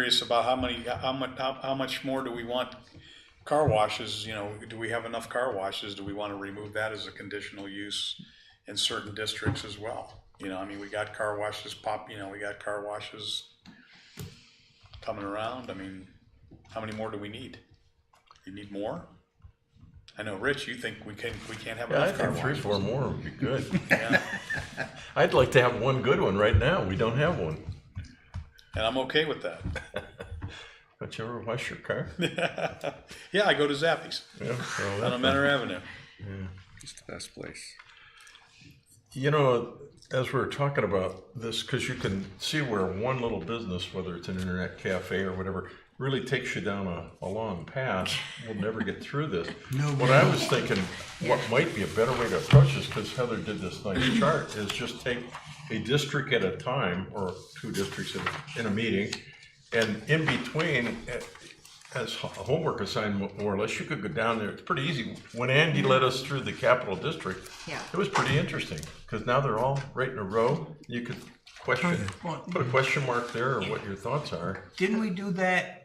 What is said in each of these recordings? curious about how many, how much, how, how much more do we want car washes, you know, do we have enough car washes? Do we want to remove that as a conditional use in certain districts as well? You know, I mean, we got car washes pop, you know, we got car washes coming around. I mean, how many more do we need? You need more? I know, Rich, you think we can, we can't have Yeah, I enough car think three, washes. four more would be good. Yeah. I'd like to have one good one right now. We don't have one. And I'm okay with that. Don't you ever wash your car? Yeah, I go to Zappies Yeah, so on that- Menor Avenue. It's the best place. You know, as we were talking about this, because you can see where one little business, whether it's an internet cafe or whatever, really takes you down a, a long path. We'll never get through this. No. What I was thinking, what might be a better way to approach this, because Heather did this nice chart, is just take a district at a time, or two districts in, in a meeting, and in between, eh, as a homework assignment, more or less, you could go down there, it's pretty easy. When Andy led us through the Capitol District, Yeah. it was pretty interesting, because now they're all right in a row. You could question, Well- put a question mark there or what your thoughts are. Didn't we do that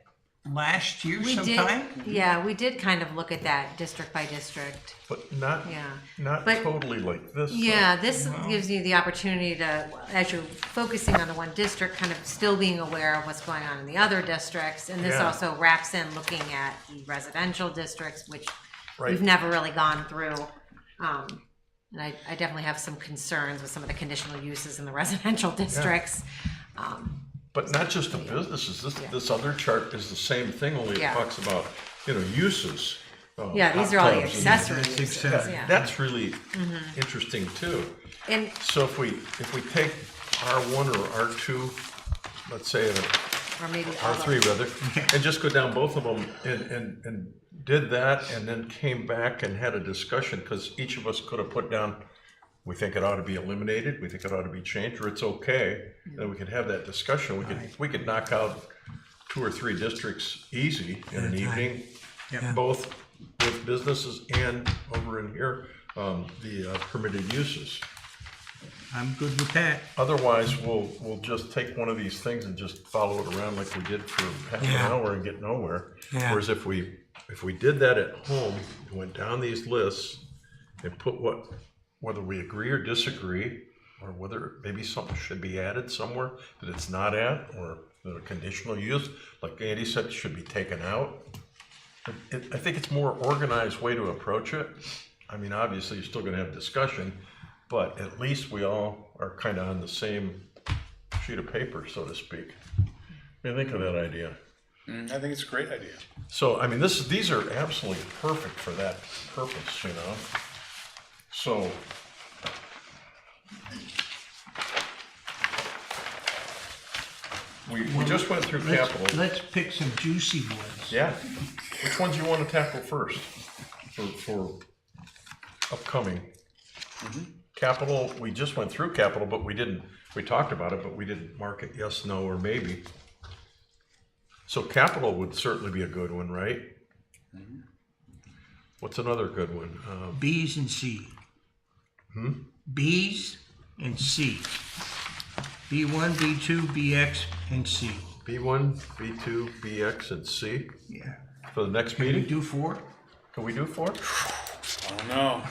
last year We did, sometime? yeah, we did kind of look at that district by district. But not, Yeah. not But- totally like this. though. Yeah, this gives you the opportunity to, as you're focusing on the one district, kind of still being aware of what's going on in the other districts. And this Yeah. also wraps in looking at the residential districts, which Right. we've never really gone through. Um, and I, I definitely have some concerns with some of the conditional uses in the residential districts. Um, But not just the businesses, this, this other chart is the same thing, only it Yeah. talks about, you know, uses. uh, Yeah, these hot are all the tubs and- accessory That's uses, accessory. yeah. Mm-hmm. That's really interesting too. And So if we, if we take R one or R two, let's say, uh, R Or maybe all the- three rather, and just go down both of them and, and, and did that and then came back and had a discussion, because each of us could have put down, we think it ought to be eliminated, we think it ought to be changed, or it's okay, then we could have that discussion, we could, we could knock out two or three districts easy in an evening, both with businesses and over in here, um, the uh, permitted uses. I'm good with that. Otherwise, we'll, we'll just take one of these things and just follow it around like we did for half an Yeah. hour and get nowhere. Yeah. Whereas if we, if we did that at home, went down these lists and put what, whether we agree or disagree, or whether maybe something should be added somewhere that it's not at, or that a conditional use, like Andy said, should be taken out. It, I think it's more organized way to approach it. I mean, obviously, you're still gonna have discussion, but at least we all are kind of on the same sheet of paper, so to speak. What do you think of that idea? Mm, I think it's a great idea. So, I mean, this, these are absolutely perfect for that purpose, you know? So. We, we just went through Let's- capital. Let's pick some juicy ones. Yeah. Which ones you want to tackle first for, for upcoming? Mm-hmm. Capital, we just went through capital, but we didn't, we talked about it, but we didn't mark it yes, no, or maybe. So capital would certainly be a good one, right? Mm-hmm. What's another good one? Um, Bs and C. Hmm? Bs and C. B1, B2, BX, and C. B1, B2, BX, and C Yeah. for the next Can we meeting? do four? Can we do four? I don't know.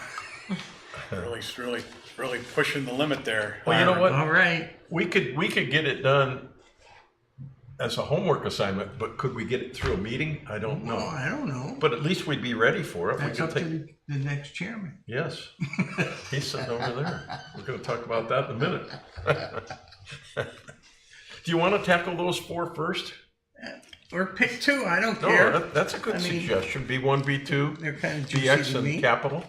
Really, really, really pushing the limit there. Well, you know what? All right. We could, we could get it done as a homework assignment, but could we get it through a meeting? I don't Well, know. I don't know. But at least we'd be ready for it. We That's could up to take, the the next chairman. yes. He's sitting over there. We're gonna talk about that in a minute. Do you want to tackle those four first? Or pick two, I don't No, care. that- that's a good I mean, suggestion. B one, B two, They're kind of juicy BX to and me. capital.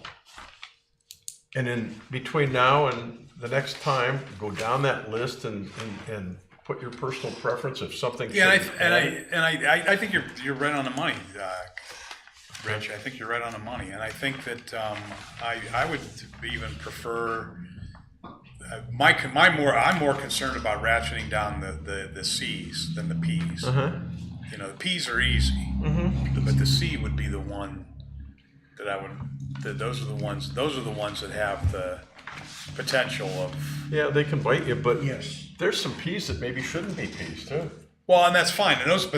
And then between now and the next time, go down that list and, and, and put your personal preference if something. Yeah, and should I, and I, add. and I, I- I think you're, you're right on the money, uh, Rich, I think you're right on the money, and I think that, um, I, I would even prefer, uh, my, con- my more, I'm more concerned about ratcheting down the, the, the Cs than the Ps. You know, the Ps are easy, but the C would be the one that I would, that those are the ones, those are the ones that have the potential of, Yeah, they can bite you, but Yes. there's some peas that maybe shouldn't be peas too. Well, and that's fine, and those, but